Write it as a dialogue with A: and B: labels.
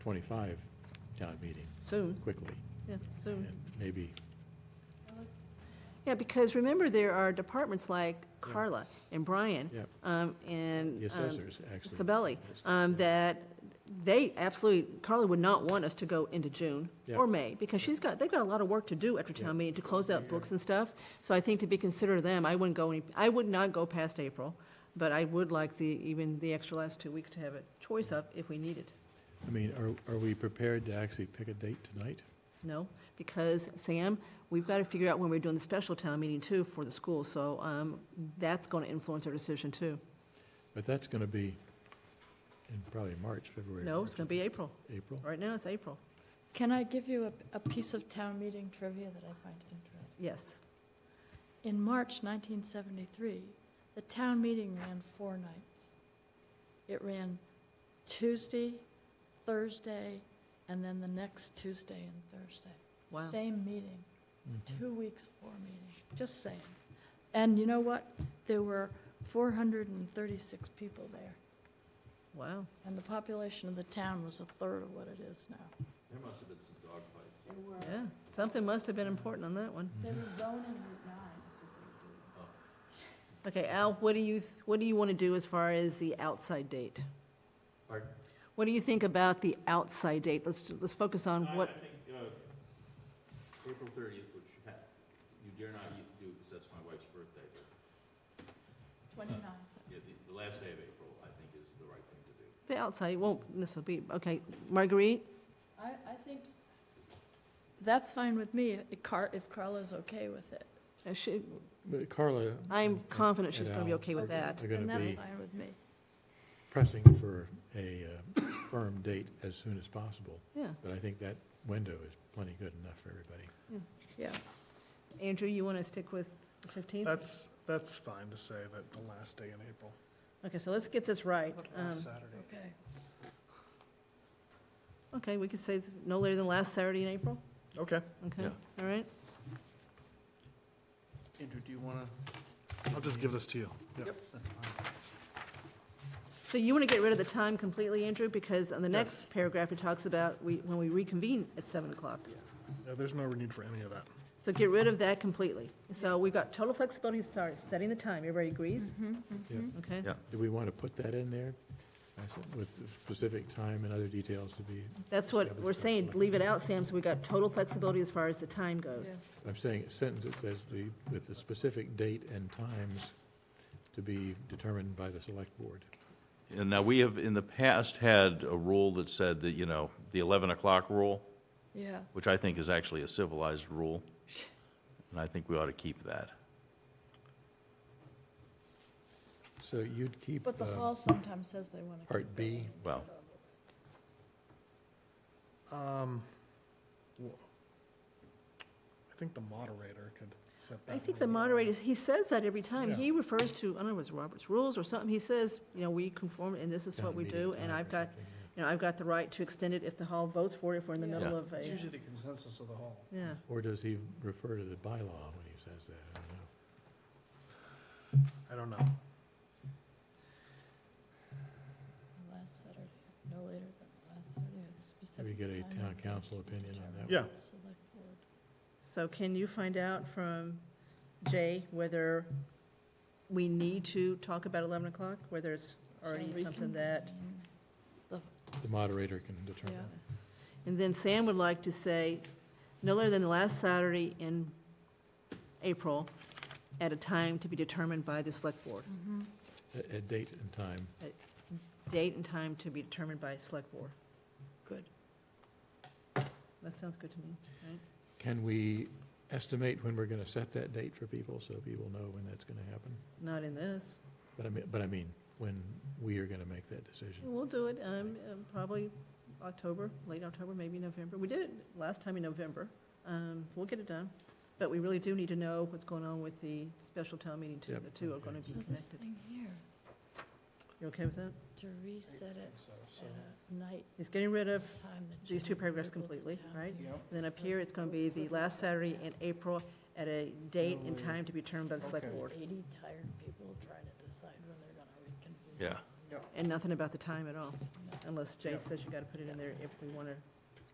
A: 25 town meeting
B: Soon,
A: quickly,
B: yeah, soon.
A: and maybe,
B: Yeah, because remember, there are departments like Carla and Brian
A: yeah,
B: um, and.
A: The
B: um,
A: assessors, actually.
B: Sabelli, um, that they absolutely, Carla would not want us to go into June or
A: Yeah.
B: May, because she's got, they've got a lot of work to do after
A: Yeah.
B: town meeting to close out books and stuff. So I think to be considerate of them, I wouldn't go any, I would not go past April, but I would like the, even the extra last two weeks to have a choice of if we need it.
A: I mean, are, are we prepared to actually pick a date tonight?
B: No, because Sam, we've got to figure out when we're doing the special town meeting too for the school, so um, that's going to influence our decision too.
A: But that's going to be in probably March, February.
B: No, it's going to be April.
A: be. April?
B: Right now, it's April.
C: Can I give you a, a piece of town meeting trivia that I find interesting?
B: Yes.
C: In March 1973, the town meeting ran four nights. It ran Tuesday, Thursday, and then the next Tuesday and Thursday.
B: Wow.
C: Same meeting,
A: Mhm.
C: two weeks, four meetings, just saying. And you know what? There were 436 people there,
B: Wow.
C: and the population of the town was a third of what it is now.
D: There must have been some dogfights.
C: There were,
B: Yeah. Something must have been important on that one.
A: Mm-hmm.
C: there was zoning Route 9. is what they do.
B: Okay, Al, what do you, th- what do you want to do as far as the outside date?
D: Pardon?
B: What do you think about the outside date? Let's, let's focus on what,
D: I think, uh, April thirtieth, which you ha- you dare not y- do, because that's my wife's birthday, but,
C: 29.
D: yeah, the, the last day of April, I think, is the right thing to do.
B: the outside, it won't necessarily be, okay, Marguerite?
C: I, I think that's fine with me, if Car, if Carla's okay with it.
B: Uh, she-
A: But Carla,
B: I'm confident she's
A: And
B: going to be
A: Al.
B: okay with that.
A: are going
C: And
A: to
C: that's
A: be
C: fine with me.
A: pressing for a uh, firm date as soon as possible,
B: Yeah.
A: but I think that window is plenty good enough for everybody.
C: Yeah,
B: Andrew, you want to stick with the 15th?
E: That's, that's fine to say that the last day in April,
B: Okay, so let's get this right. Um,
E: last Saturday.
C: okay.
B: Okay, we could say th- no later than last Saturday in April?
E: Okay.
B: Okay,
A: Yeah.
B: all right.
E: Andrew, do you want to? I'll just give this to you. Yep.
B: So you want to get rid of the time completely, Andrew, because on the next
E: Yes.
B: paragraph, it talks about we, when we reconvene at 7 o'clock.
E: Yeah, there's no need for any of that.
B: So get rid of that completely. So we've got total flexibility, sorry, setting the time, everybody agrees?
C: Mm-hmm.
A: Yeah.
B: Okay?
D: Yeah.
A: Do we want to put that in there? I said, With the specific time and other details to be,
B: That's what we're saying, leave it out, Sam, so we've got total flexibility as far as the time goes.
A: I'm saying a sentence that says the, with the specific date and times to be determined by the select board.
D: And now, we have, in the past, had a rule that said that, you know, the eleven o'clock rule,
C: Yeah,
D: which I think is actually a civilized rule, and I think we ought to keep that.
A: So you'd keep
C: but the
A: uh,
C: hall sometimes says they want to.
A: Part B,
D: Well,
E: Um, wh- I think the moderator could set that. uh,
B: I think the
E: rule.
B: moderator, he says that every time.
E: Yeah.
B: He refers to, I don't know, if it's Robert's Rules or something. He says, you know, we conform, and this is
A: town
B: what we
A: meeting
B: do,
A: time
B: and
A: or
B: I've got,
A: something, yeah.
B: you know, I've got the right to extend it if the hall votes for it, if we're in the
C: Yeah.
B: middle
D: Yeah.
B: of a,
E: It's usually the consensus of the hall.
B: yeah.
A: Or does he refer to the bylaw when he says that? I don't know.
E: I don't know.
C: Last Saturday, no later than the last Saturday, at a specific.
A: we get a
C: time
A: town
C: and
A: council
C: date to
A: opinion on
C: determine
E: that one?
C: the select board.
B: So can you find out from Jay whether we need to talk about 11 o'clock? Whether it's already
C: So we
B: something
C: can-
B: that,
C: I mean,
A: The moderator can determine.
C: Yeah,
B: and then Sam would like to say, no later than the last Saturday in April, at a time to be determined by the select board.
C: Mm-hmm.
A: A, a date and time.
B: Date and time to be determined by select board.
C: good.
B: That sounds good to me.
A: Can we estimate when we're going to set that date for people, so people know when that's going to happen?
B: Not in this.
A: But I mean, but I mean, when we are going to make that decision.
B: We'll do it, um, uh, probably October, late October, maybe November. We did it last time in November. Um, we'll get it done. But we really do need to know what's going on with the special town meeting too.
A: Yep,
B: The two are
A: okay.
B: gonna be
C: So this
B: connected.
C: thing here,
B: You okay with that?
C: to reset it
E: So, so-
C: at a night
B: He's getting rid of
C: time. that
B: these two
C: generally
B: paragraphs
C: people at the
B: completely,
C: town
B: right?
C: meeting
E: Yep.
B: And then up here, it's gonna be the last Saturday in April at a date and time to be determined by the select
E: Okay.
B: board.
C: Eighty tired people trying to decide when they're gonna reconvene.
D: yeah.
B: And nothing about the time at all.
C: No.
B: unless Jay says you gotta put it in there if we wanna